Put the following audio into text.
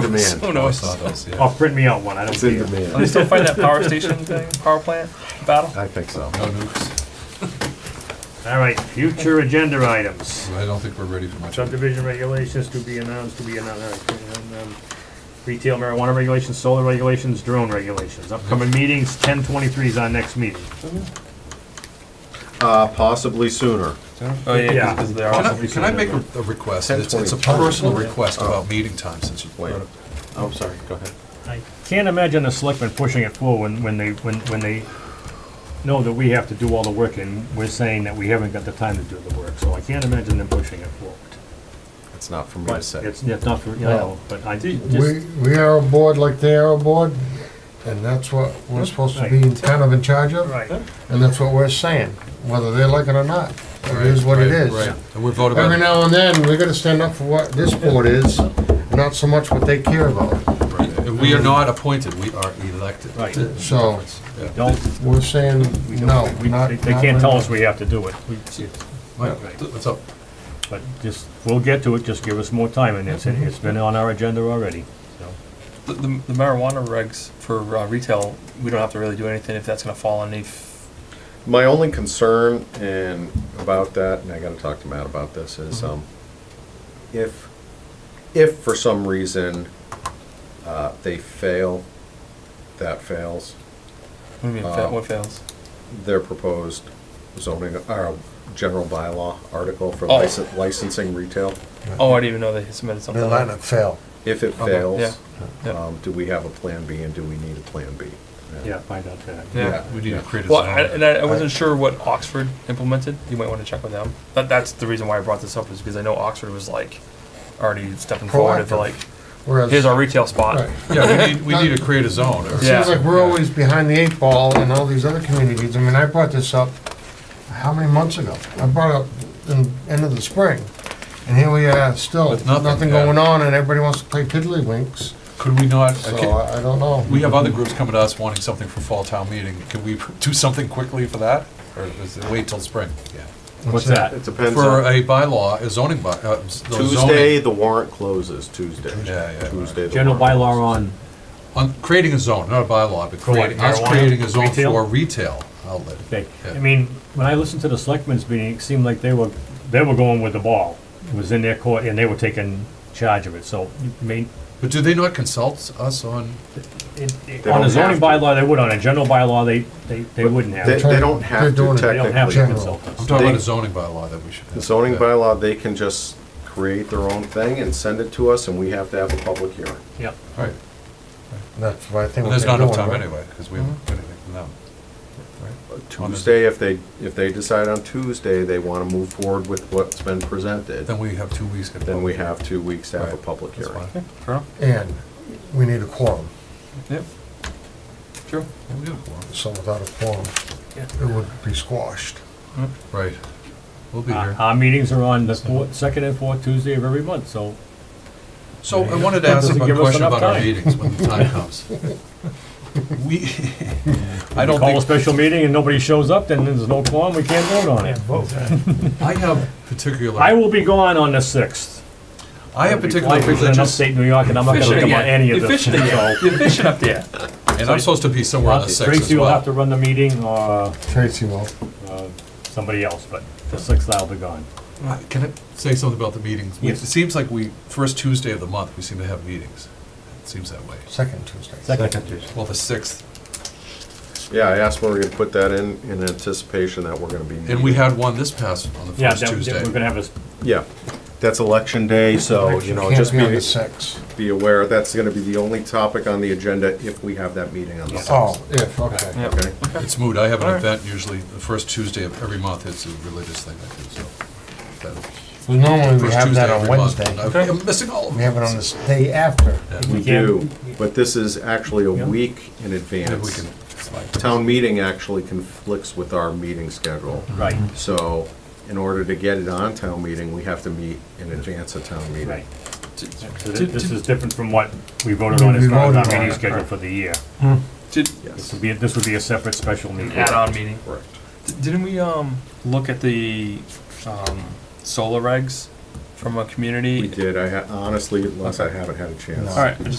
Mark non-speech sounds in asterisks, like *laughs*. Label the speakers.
Speaker 1: *laughs*
Speaker 2: demand.
Speaker 3: Who knows?
Speaker 1: Oh, saw those, yeah.
Speaker 4: Oh, print me out one, I don't
Speaker 2: It's in
Speaker 4: care.
Speaker 3: Are they
Speaker 2: demand.
Speaker 3: still fighting that power station thing, power plant battle?
Speaker 2: I think so.
Speaker 1: No nukes.
Speaker 4: All right, future agenda items.
Speaker 1: I don't think we're ready for much.
Speaker 4: Subdivision regulations to be announced, to be announced, all right, and, um, retail marijuana regulations, solar regulations, drone regulations. Upcoming meetings, ten twenty-three is our next meeting.
Speaker 2: Uh, possibly sooner.
Speaker 3: Oh,
Speaker 4: Yeah.
Speaker 3: yeah, because they
Speaker 1: Can
Speaker 3: are.
Speaker 1: I, can I make a a request? It's it's a
Speaker 2: 10:20.
Speaker 1: personal request about meeting time since you
Speaker 2: Wait.
Speaker 1: brought it.
Speaker 2: Oh, sorry, go ahead.
Speaker 4: I can't imagine the selectmen pushing it forward when, when they, when, when they know that we have to do all the work and we're saying that we haven't got the time to do the work, so I can't imagine them pushing it forward.
Speaker 2: It's not for me to
Speaker 4: But
Speaker 2: say.
Speaker 4: it's, it's not for, you know, but I
Speaker 5: We,
Speaker 4: just,
Speaker 5: we are a board like they are a board, and that's what we're supposed to be kind of in charge of,
Speaker 4: right.
Speaker 5: and that's what we're saying, whether they like it or not. It is what
Speaker 1: Right,
Speaker 5: it is.
Speaker 1: Right, and we're voting
Speaker 5: Every
Speaker 1: about
Speaker 5: now and then, we gotta stand up for what this board is, not so much what they care about.
Speaker 1: it. And We are not appointed, we are elected.
Speaker 4: Right.
Speaker 5: So,
Speaker 1: Yeah.
Speaker 4: Don't,
Speaker 5: we're saying, no,
Speaker 4: we,
Speaker 5: not.
Speaker 4: they they
Speaker 5: not
Speaker 4: can't tell
Speaker 5: right
Speaker 4: us we have to do it, we-
Speaker 1: Mike, What's up?
Speaker 4: but just, we'll get to it, just give us more time, and it's, it's been on our agenda already, so. uh,
Speaker 3: The the marijuana regs for uh, retail, we don't have to really do anything if that's gonna fall underneath.
Speaker 2: My only concern and about that, and I gotta talk to Matt about this, is, um, if, if for some reason, uh, they fail, that fails,
Speaker 3: What do you mean, fa- what fails?
Speaker 2: their proposed zoning, or general bylaw article for
Speaker 3: Oh.
Speaker 2: licen- licensing retail,
Speaker 3: Oh, I didn't even know they submitted
Speaker 5: now.
Speaker 3: something.
Speaker 5: They're letting it fail.
Speaker 2: if it
Speaker 1: Okay.
Speaker 3: Yeah.
Speaker 2: fails,
Speaker 3: Yeah.
Speaker 2: um, do we have a plan B and do we need a plan B?
Speaker 4: Yeah, find out that.
Speaker 3: Yeah.
Speaker 1: We need to create a
Speaker 3: Well, I-
Speaker 1: zone.
Speaker 3: and I I wasn't sure what Oxford implemented. You might wanna check with them. That, that's the reason why I brought this up is because I know Oxford was like already stepping forward and
Speaker 5: Proactive.
Speaker 3: like,
Speaker 5: Whereas,
Speaker 3: here's
Speaker 5: seems
Speaker 3: our retail spot.
Speaker 5: Right.
Speaker 1: Yeah, we need,
Speaker 5: *laughs*
Speaker 1: we need to create a zone. or-
Speaker 3: Yeah.
Speaker 5: like we're always behind the eight ball in all these other communities. I mean, I brought this up, how many months ago? I brought it up in, end of the spring. And here we are, still,
Speaker 1: With nothing,
Speaker 5: nothing
Speaker 1: yeah.
Speaker 5: going on, and everybody wants to play tiddlywinks.
Speaker 1: Could we not,
Speaker 5: So
Speaker 1: okay,
Speaker 5: I I don't know.
Speaker 1: we have other groups coming to us wanting something for fall town meeting. Can we *laughs* do something quickly for that? Or is it wait till spring?
Speaker 4: What's that?
Speaker 2: It depends
Speaker 1: For
Speaker 2: on,
Speaker 1: a bylaw, a zoning by, uh, s- the zoning-
Speaker 2: Tuesday, the warrant closes Tuesday.
Speaker 1: Yeah, yeah, right.
Speaker 2: Tuesday. the
Speaker 4: General
Speaker 2: warrant
Speaker 4: bylaw
Speaker 2: closes.
Speaker 4: on,
Speaker 1: On creating a zone, not a bylaw, but
Speaker 4: For what,
Speaker 1: creating, us
Speaker 4: marijuana?
Speaker 1: creating a zone
Speaker 4: Retail?
Speaker 1: for retail outlet.
Speaker 4: okay, I
Speaker 1: Yeah.
Speaker 4: mean, when I listened to the selectmen's meeting, it seemed like they were, they were going with the ball. It was in their court, and they were taking charge of it, so, I mean,
Speaker 1: But do they not consult us on,
Speaker 4: it- it-
Speaker 2: They
Speaker 4: on a
Speaker 2: don't
Speaker 4: zoning
Speaker 2: have to.
Speaker 4: bylaw, they would, on a general bylaw, they, they, they wouldn't have.
Speaker 2: They,
Speaker 4: They
Speaker 2: they don't have
Speaker 5: They're
Speaker 2: to
Speaker 5: doing it. They
Speaker 4: don't have
Speaker 5: Technically.
Speaker 4: to
Speaker 2: technically.
Speaker 4: consult
Speaker 1: I'm
Speaker 4: us.
Speaker 1: talking about
Speaker 2: They-
Speaker 1: a zoning bylaw that we should have.
Speaker 2: Zoning
Speaker 1: Yeah.
Speaker 2: bylaw, they can just create their own thing and send it to us, and we have to have a public hearing.
Speaker 4: Yep.
Speaker 1: Right,
Speaker 5: That's what I think.
Speaker 1: and
Speaker 5: what
Speaker 1: there's
Speaker 5: they're
Speaker 1: not enough
Speaker 5: doing,
Speaker 1: time
Speaker 5: right?
Speaker 1: anyway, because we
Speaker 4: Mm-hmm.
Speaker 1: haven't got anything from them.
Speaker 2: Tuesday, if they, if they decide on Tuesday, they want to move forward with what's been presented,
Speaker 1: Then we have two weeks. to-
Speaker 2: then we have two weeks to have a
Speaker 1: Right.
Speaker 2: public
Speaker 1: That's
Speaker 2: hearing.
Speaker 1: fine.
Speaker 3: Sure.
Speaker 5: And we need a quorum,
Speaker 3: Yep. Sure.
Speaker 1: Yeah, we got a quorum.
Speaker 5: so without a quorum,
Speaker 3: Yeah.
Speaker 5: it would be squashed.
Speaker 1: Right, we'll be
Speaker 4: Our
Speaker 1: here.
Speaker 4: Uh, our meetings are on the fourth, second and fourth Tuesday of every month, so
Speaker 1: So I wanted to
Speaker 4: That
Speaker 1: ask
Speaker 4: doesn't
Speaker 1: a
Speaker 4: give us
Speaker 1: question
Speaker 4: enough
Speaker 1: about our
Speaker 4: time.
Speaker 1: meetings when the time
Speaker 4: *laughs*
Speaker 1: comes. We, *laughs* I
Speaker 4: we
Speaker 1: don't
Speaker 4: call a
Speaker 1: think,
Speaker 4: special meeting and nobody shows up, then there's no quorum, we can't vote on it.
Speaker 1: I have particular,
Speaker 4: I will be gone on the sixth.
Speaker 1: I have particular
Speaker 4: In
Speaker 1: religious,
Speaker 4: upstate New York, and I'm not gonna
Speaker 3: Fishing
Speaker 4: come on
Speaker 3: again.
Speaker 4: any of
Speaker 3: You're
Speaker 4: this.
Speaker 3: fishing again. You're fishing up
Speaker 4: *laughs*
Speaker 3: there.
Speaker 1: and I'm supposed to be somewhere on the sixth as
Speaker 4: Tracy will have
Speaker 1: well.
Speaker 4: to run the meeting, or
Speaker 5: *laughs* Tracy will.
Speaker 4: uh, somebody else, but the sixth I'll be gone.
Speaker 1: Uh, Can I say something about the meetings? We- It
Speaker 4: Yes.
Speaker 1: seems like we, first Tuesday of the month, we seem to have meetings. It seems that way.
Speaker 5: Second Tuesday.
Speaker 4: Second
Speaker 1: Well, the sixth,
Speaker 2: Yeah, I asked where we're gonna put that in, in anticipation that we're gonna be.
Speaker 1: and we had one this past, on the
Speaker 4: Yeah,
Speaker 1: first
Speaker 4: that-
Speaker 1: Tuesday.
Speaker 4: that- we're gonna have this,
Speaker 2: Yeah, that's election day, so, you know,
Speaker 5: Can't
Speaker 2: just
Speaker 5: be on the
Speaker 2: be,
Speaker 5: sixth.
Speaker 2: be aware, that's gonna be the only topic on the agenda if we have that meeting on the
Speaker 5: Oh,
Speaker 2: sixth.
Speaker 5: if, okay.
Speaker 3: Yep.
Speaker 2: Okay,
Speaker 1: *laughs* *laughs* It's moot. I have an
Speaker 3: Alright.
Speaker 1: event usually, the first Tuesday of every month, it's a religious thing I do, so. that-
Speaker 5: So normally we
Speaker 1: first
Speaker 5: have
Speaker 1: Tuesday
Speaker 5: that on
Speaker 1: every month,
Speaker 5: Wednesday.
Speaker 1: and I- I'm missing all of
Speaker 5: We have it on
Speaker 1: them.
Speaker 5: this day after.
Speaker 2: we
Speaker 4: we can't,
Speaker 2: do, but this is actually
Speaker 4: Yeah.
Speaker 2: a week in
Speaker 1: Maybe we
Speaker 2: advance.
Speaker 1: can slide.
Speaker 2: Town meeting actually conflicts with our meeting schedule.
Speaker 4: right,
Speaker 2: So in order to get it on town meeting, we have to meet in advance of town meeting.
Speaker 4: right. So thi- This is different from what we voted on
Speaker 5: We
Speaker 4: as far as
Speaker 5: voted
Speaker 4: our
Speaker 5: on
Speaker 4: meeting
Speaker 5: it.
Speaker 4: schedule for the year.
Speaker 3: Did,
Speaker 4: This would be, this would be a separate special meeting.
Speaker 3: add-on meeting.
Speaker 2: Correct.
Speaker 3: D- Didn't we um look at the um, solar regs from a community?
Speaker 2: We did, I ha- honestly, unless I haven't had a chance.
Speaker 3: All right, I just